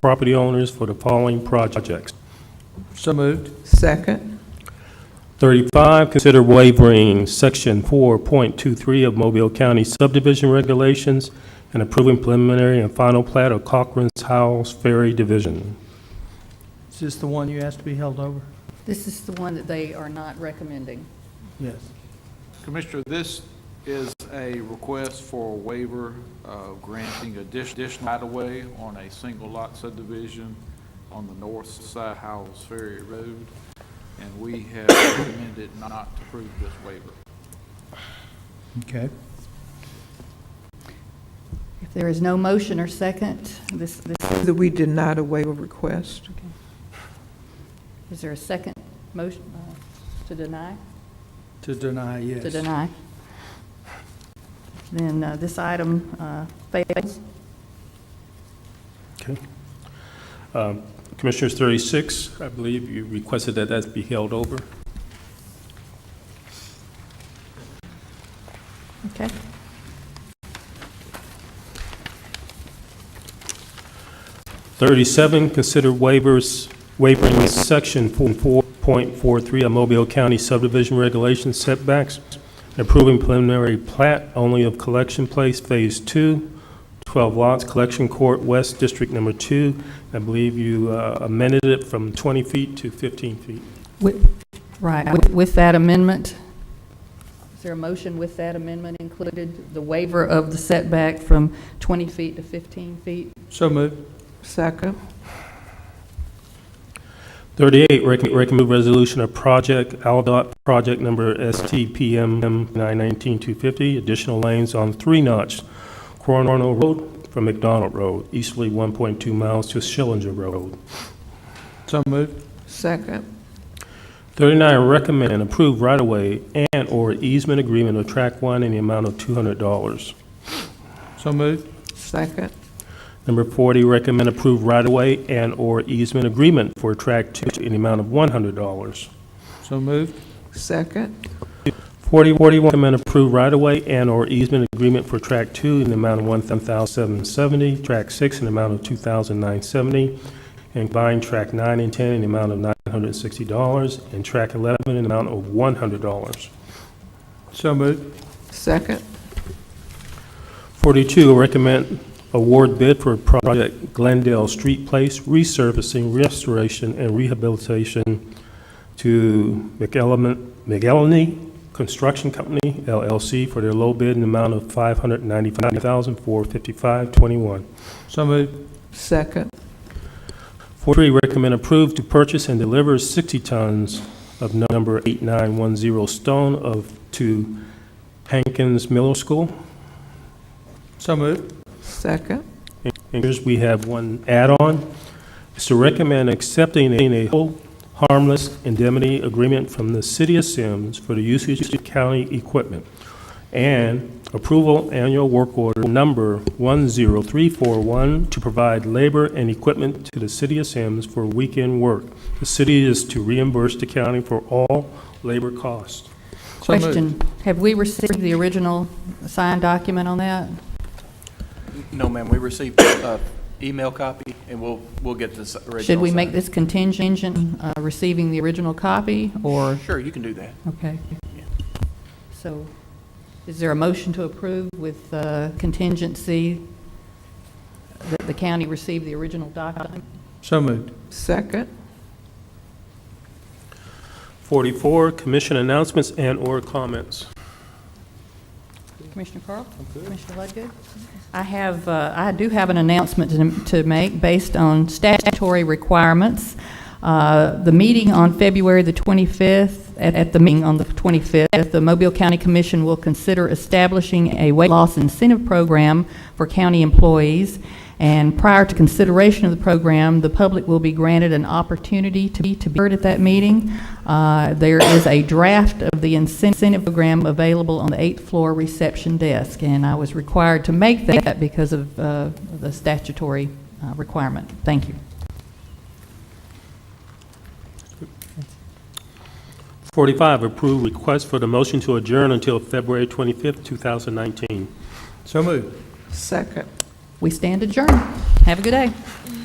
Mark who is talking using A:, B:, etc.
A: property owners for the following projects.
B: So moved.
C: second,
A: 35, consider waiving Section 4.23 of Mobile County subdivision regulations and approving preliminary and final plat of Cochran's House Ferry Division.
B: Is this the one you asked to be held over?
D: This is the one that they are not recommending.
B: Yes.
E: Commissioner, this is a request for a waiver of granting addition- additional right-of-way on a single lot subdivision on the north side of Howells Ferry Road, and we have recommended not to approve this waiver.
B: Okay.
D: If there is no motion or second, this, this,
C: that we denied a waiver request.
D: is there a second motion uh, to deny?
B: To deny, yes.
D: To deny. Then uh, this item uh, fails.
A: Okay. Um, Commissioners, 36, I believe you requested that that be held over.
D: Okay.
A: Thirty-seven, consider waivers, waiving section four point four three of Mobile County subdivision regulation setbacks, approving preliminary plat only of Collection Place Phase Two, twelve lots, Collection Court West District Number Two. I believe you uh, amended it from twenty feet to fifteen feet.
D: Right. With- With that amendment, is there a motion with that amendment included, the waiver of the setback from 20 feet to 15 feet?
B: So moved.
C: Second,
A: 38, rec- recommend resolution of project, ALDOT project number STPM 919-250, additional lanes on Three Notch, Coronado Road from McDonald Road, easterly 1.2 miles to Schillinger Road.
B: So moved.
C: second,
A: 39, recommend and approve right-of-way and/or easement agreement of Track 1 in the amount of $200.
B: So moved.
C: second,
A: Number 40, recommend approve right-of-way and/or easement agreement for Track 2 in the amount of $100.
B: So moved.
C: second,
A: 4041, recommend approve right-of-way and/or easement agreement for Track 2 in the amount of 1770 Track 6 in the amount of 2970 and combine Track 9 and 10 in the amount of $960, and Track 11 in the amount of $100.
B: So moved.
C: second,
A: 42, recommend award bid for project Glendale Street Place resurfacing, restoration, and rehabilitation to McElement- McElhenney Construction Company LLC for their low bid in the amount of $595,455.21.
B: So moved.
C: second,
A: 43, recommend approve to purchase and deliver 60 tons of number 8910 stone of, to Hankins Middle School.
B: So moved.
C: second,
A: And here's, we have one add-on. It's to recommend accepting a whole harmless indemnity agreement from the City of Sims for the usage of county equipment and approval annual work order number 10341 to provide labor and equipment to the City of Sims for weekend work. The city is to reimburse the county for all labor costs.
B: So moved.
D: Question, have we received the original signed document on that?
F: No, ma'am, we received an email copy, and we'll, we'll get this original.
D: Should we make
F: signed.
D: this contingent, uh, receiving the original copy, or,
F: Sure, you can do that.
D: okay? So, is there a motion to approve with uh, contingency that the county receive the original document?
B: So moved.
C: second,
A: 44, commission announcements and/or comments.
D: Commissioner Carl? Commissioner Ludgood? I have, uh, I do have an announcement to- to make based on statutory requirements. Uh, The meeting on February the 25th, at at the meeting on the 25th, the Mobile County Commission will consider establishing a weight loss incentive program for county employees. And prior to consideration of the program, the public will be granted an opportunity to be, to be heard at that meeting. Uh, There is a draft of the incentive program available on the eighth floor reception desk, and I was required to make that because of uh, the statutory uh, requirement. Thank you.
A: 45, approve request for the motion to adjourn until February 25th, 2019.
B: So moved.
C: second.
D: We stand adjourned. Have a good day.